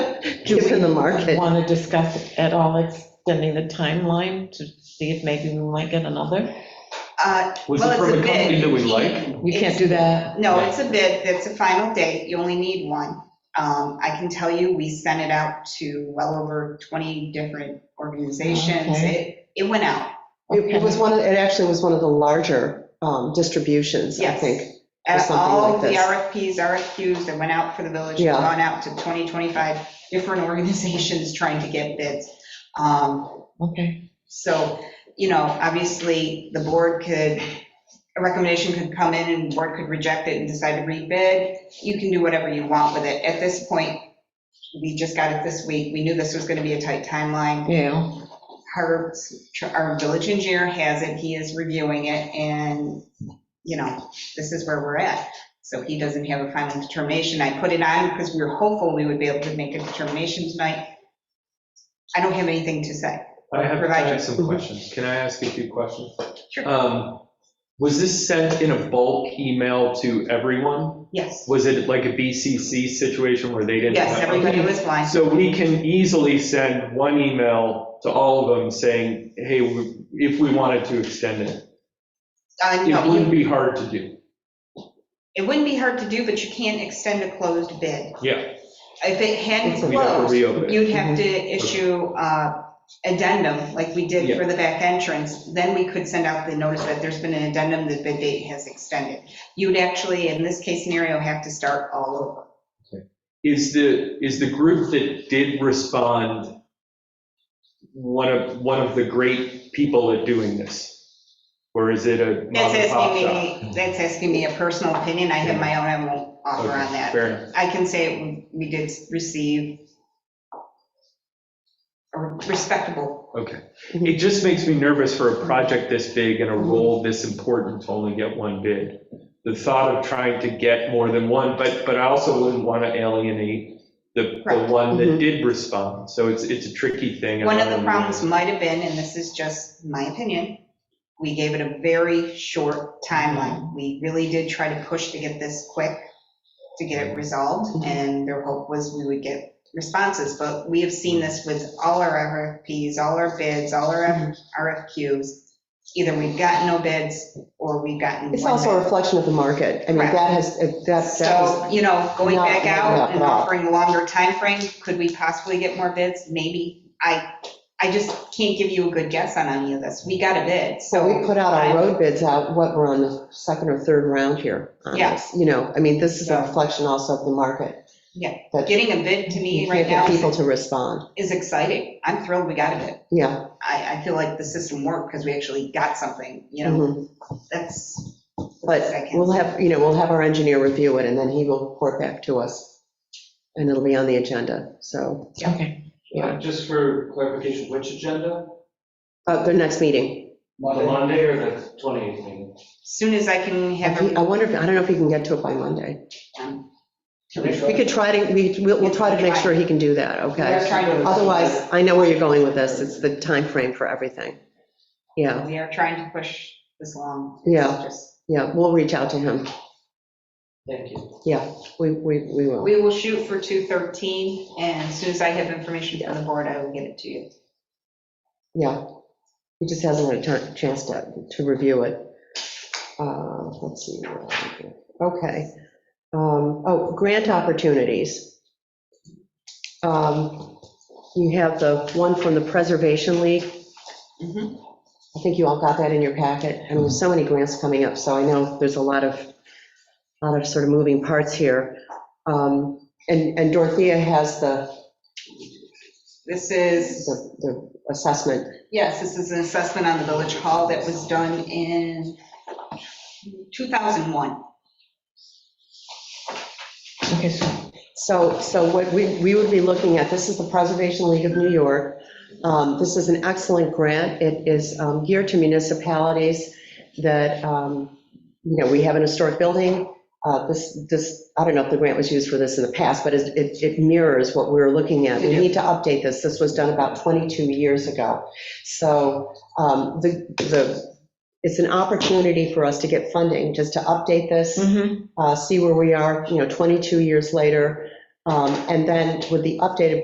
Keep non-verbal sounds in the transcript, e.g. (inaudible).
Do It's in the we market. want to discuss at all extending the timeline to see if maybe we might get another? Uh, Was Well, it it's from a a bid. company that we You like? can't- We can't do that. No, it's a bid, it's a final date, you only need one. Um, I can tell you, we sent it out to well over 20 different organizations. It, it went out. It it was one, of- it actually was one of the larger um, distributions, I Yes. think. Or Uh, something All like the this. RFPs, RFQs that went out for the village, have Yeah. gone out to 20, 25 different (laughs) organizations trying to get bids. Um, Okay. So, you know, obviously, the board could, a recommendation could come in and the board could reject it and decide to rebid. You can do whatever you want with it. At this point, we just got it this week. We knew this was going to be a tight timeline. Yeah, Our, our village engineer has it, he is reviewing it, and, you know, this is where we're at. So he doesn't have a final determination. I put it on because we were hopeful we would be able to make a determination tonight. I don't have anything to say. I have, I Provide have you. some questions. Can I ask a few questions? Sure. Um, Was this sent in a bulk email to everyone? Yes, Was it like a BCC situation where they didn't? yes, have- everybody was blind. So we can easily send one email to all of them saying, hey, we- if we wanted to extend it. Uh, It no, wouldn't you- be hard to do. it wouldn't be hard to do, but you can't extend a closed bid. Yeah, If it hadn't It's a- we'd have to closed, reopen. it. you'd have to Mm-hmm. issue uh, addendum, like we did for the back entrance. Then we could send out the notice that there's been an addendum, the bid date has extended. You'd actually, in this case scenario, have to start all over. Is the, is the group that did respond one of, one of the great people at doing this? Or is it a mom That's and pop asking shop? me, that's asking me a personal opinion. I have my own, I won't offer on Okay, that. Fair enough. I can say we did receive a respectable Okay. It just makes me nervous for a project this big and a role this important to only get one bid. The thought of trying to get more than one, but, but I also wouldn't want to alienate the, the Correct. one that Mhm. did respond. So it's, it's a tricky thing. One of the problems might have been, and this is just my opinion, we gave it a very short timeline. We really did try to push to get this quick, to get it Mm-hmm. resolved, and their hope was we would get responses. But we have seen this with all our RFPs, all our bids, all our Mm-hmm. RFQs. Either we've gotten no bids, or we've gotten It's one also a bid. reflection of the market. I mean, Correct. that has, that, that was, So, you know, going Not back working out out and at all. offering a longer time frame, could we possibly get more bids? Maybe. I, I just can't give you a good guess on any of this. We got a bid, so we so, put out our road bids out, what, we're on the second or third round here. on Yeah. this, You know, I mean, this is a Yeah. reflection also of the market. Yeah. That you getting a bid to me can't right now get people is- to respond. is exciting. I'm thrilled we got a bid. Yeah. I, I feel like the system worked because we actually got something, you know, mhm. that's. But Second. we'll have, you know, we'll have our engineer review it and then he will report back to us. And it'll be on the agenda, so, okay. yeah. Just for clarification, which agenda? Uh, the next meeting. The Monday or the 28th meeting? Soon as I can I have a wonder if, I don't know if he can get to it by Monday. We could try to, we, we'll, we'll try to make sure he can do that, We're okay? trying to- Otherwise, I know where you're going with this, it's the time frame for everything. Yeah, We are trying to push this along. Yeah. Just- yeah, we'll reach out to him, Thank you. yeah, we, we, we will. We will shoot for 213, and as soon as I have information from the board, I will get it to you. Yeah, he just hasn't had a ti- chance to, to review it. Uh, Let's see, where are we here? okay. Um, Oh, grant opportunities. Um, You have the one from the Preservation League. Mhm. I think you all got that in your packet. I mean, there's so many grants coming up, so I know there's a lot of, lot of sort of moving parts here. Um, And and Dorothea has the, This is the the assessment. Yes, this is an assessment on the village hall that was done in 2001. Okay, so So, so what we, we would be looking at, this is the Preservation League of New York. Um, This is an excellent grant. It is um, geared to municipalities that, um, you know, we have an historic building. Uh, This, this, I don't know if the grant was used for this in the past, but it, it it mirrors what we were looking at. We need to update this. This was done about 22 years ago. So um, the, the, it's an opportunity for us to get funding, just to update this uh, see where we are, you know, 22 years later. Um, And then with the updated